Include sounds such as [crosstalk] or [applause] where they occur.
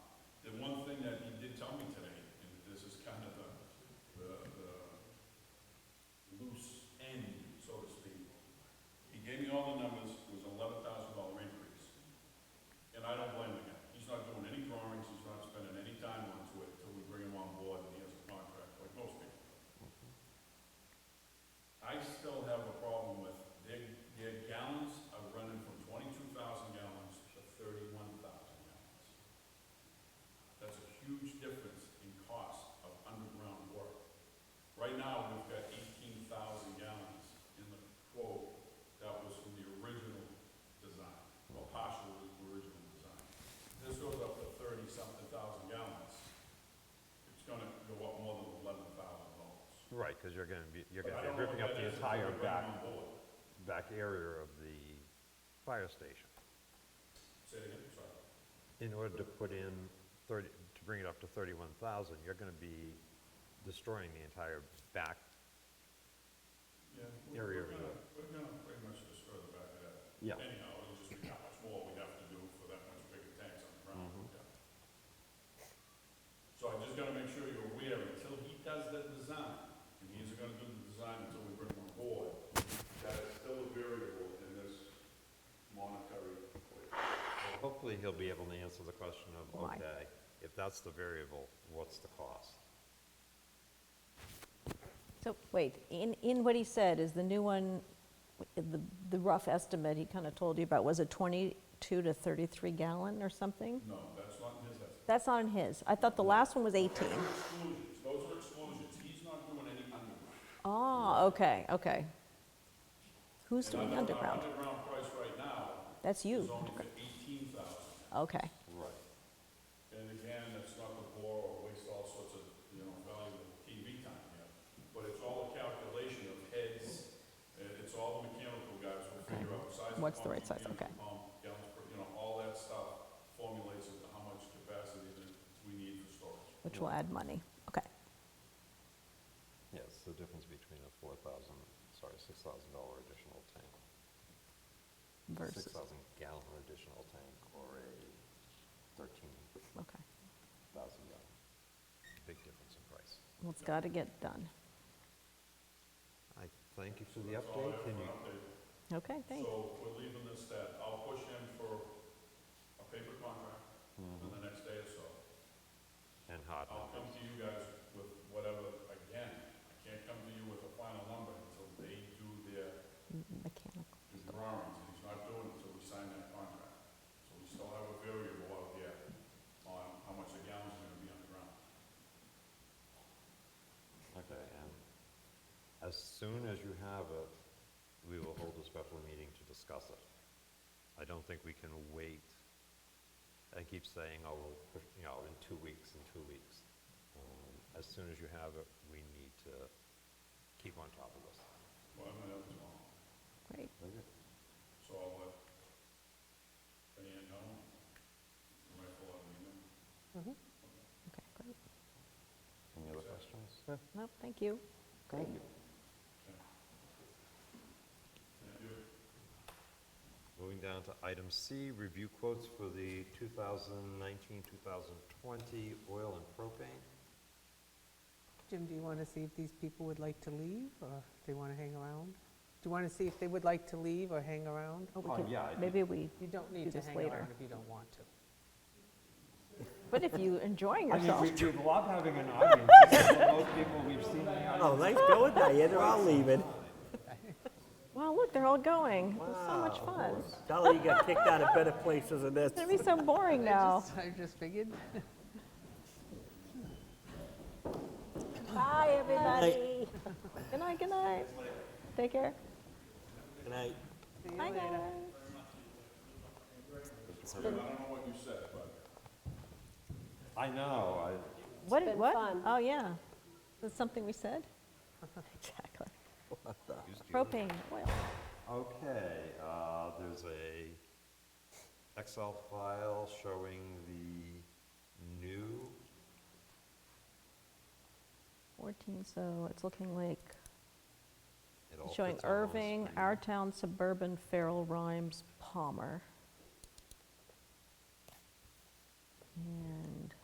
Right, because you're gonna be, you're But gonna I be don't know ripping what up that the is, if entire everybody back, on board. back area of the fire station Say it again, sorry. in order to put in thirty, to bring it up to thirty-one thousand, you're gonna be destroying the entire back. Yeah, we- Area we're of gonna, we're gonna pretty much destroy the back of that. Yeah. Anyhow, it'll just be how much more we have to do for that much bigger tanks on the ground, yeah. So I just gotta make sure you're aware, until he does the design, and he isn't gonna do the design until we bring him on board, that is still a variable in this monetary equation. Hopefully, he'll be able to answer the question of, Why? okay, if that's the variable, what's the cost? So, wait, in, in what he said, is the new one, the, the rough estimate he kind of told you about, was it 22 to 33 gallon or something? No, that's not in his estimate. That's not in his. I thought the last one was 18. Exclusions, those are exclusions, he's not doing any underground. Oh, okay, okay. Who's And doing our- our underground? Underground price right now That's you. is only for eighteen thousand. Okay, Right. And again, that's not to bore or waste all sorts of, you know, valuable TV time here, but it's all a calculation of heads, and it's all the mechanical guys will figure out size of What's the pump, right size? mechanical Okay. pump, gallons per, you know, all that stuff formulates into how much capacity that we need for storage. which will add money. Okay, Yes, the difference between a four thousand, sorry, six thousand dollar additional tank, versus, six thousand gallon additional tank, or a thirteen okay. thousand gallon. Big difference in price. Well, it's got to get done. I thank you for the update, can you, Okay, thanks. So we're leaving this that, I'll push in for a paper contract in Mm-hmm. the next day or so. and hard I'll numbers. come to you guys with whatever, again, I can't come to you with a final number until they do their Mechanical. drawings, and he's not doing it until we sign that contract. So we still have a variable out there on how much the gallons are gonna be on the ground. Okay, and as soon as you have it, we will hold a special meeting to discuss it. I don't think we can wait. I keep saying, oh, we'll, push- you know, in two weeks, in two weeks. Um, As soon as you have it, we need to keep on top of this. Well, I'm gonna have it tomorrow, Great. so I'll let Diane know. I might pull out an email. Okay, great. Any other questions? No, thank you. Great. Thank you. Moving down to item C, review quotes for the 2019, 2020 oil and propane. Jim, do you want to see if these people would like to leave, or they want to hang around? Do you want to see if they would like to leave or hang around? Oh, we Oh, could- yeah, I did. Maybe we, You don't Do need to this hang later. around if you don't want to. but if you're enjoying yourself. we love having an audience. Most people we've seen in the audience Oh, nice going, Diane, they're all leaving. Wow, look, they're all going. It was so much Wow. fun. Dolly, you got kicked out of better places than this. It's gonna be so boring now. [laughs] I just figured. Bye, everybody. Good night, good night. Take care. And I, Bye, guys. I don't know what you said, but I know, I, What, did- what? Oh, yeah. That's something we said? [laughs] Exactly. Propane, oil. Okay, uh, there's a Excel file showing the new, 14, so it's looking like, it all showing fits on one Irving, screen. Our Town, Suburban, Farrell, Rhymes, Palmer.